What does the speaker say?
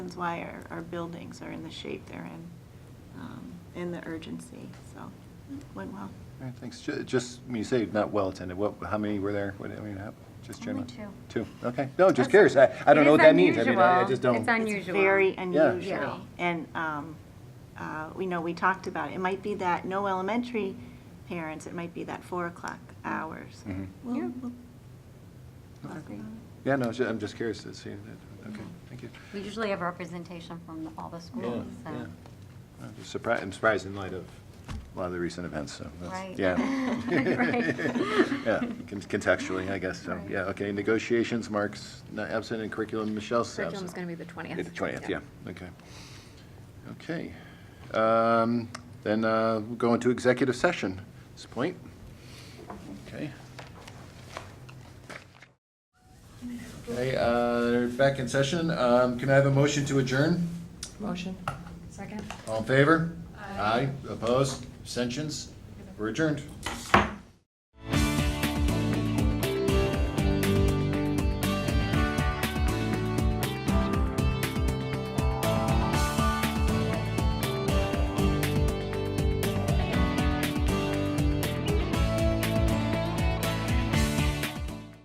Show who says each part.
Speaker 1: reasons why our, our buildings are in the shape they're in, um, and the urgency, so, went well.
Speaker 2: All right, thanks. Ju- Just, when you say not well attended, what, how many were there? What, I mean, how- just
Speaker 3: Only
Speaker 2: generally? Two, okay. No, just curious. I, I don't
Speaker 3: It
Speaker 2: know
Speaker 3: is
Speaker 2: what that means. I mean, I I
Speaker 3: unusual.
Speaker 2: just don't.
Speaker 3: It's unusual.
Speaker 1: It's very
Speaker 2: Yeah.
Speaker 3: Yeah.
Speaker 1: unusual. And, um, uh, we know, we talked about it. It might be that no elementary parents, it might be that four o'clock hours.
Speaker 2: Mhm.
Speaker 1: We'll-
Speaker 3: Yeah.
Speaker 1: we'll talk
Speaker 2: Okay.
Speaker 1: about it.
Speaker 2: Yeah, no, it's ju- I'm just curious to see that. Okay, thank you.
Speaker 3: We usually have representation from the- all the schools,
Speaker 2: Yeah.
Speaker 3: so.
Speaker 2: I'm just surprised, I'm surprised in light of a lot of the recent events, so that's,
Speaker 3: Right.
Speaker 2: yeah.
Speaker 3: Right.
Speaker 2: Yeah, con- contextually, I guess, so,
Speaker 3: Right.
Speaker 2: yeah, okay. Negotiations, Mark's not absent, and curriculum, Michelle's absent.
Speaker 4: Curriculum's going to be the 20th.
Speaker 2: Yeah, the 20th, yeah, okay. Okay. Um, Then uh, we'll go into executive session at this point. Okay. Okay, uh, back in session. Um, Can I have a motion to adjourn?
Speaker 4: Motion. Second.
Speaker 2: All in favor? Aye. Opposed? Abstentions? We're adjourned.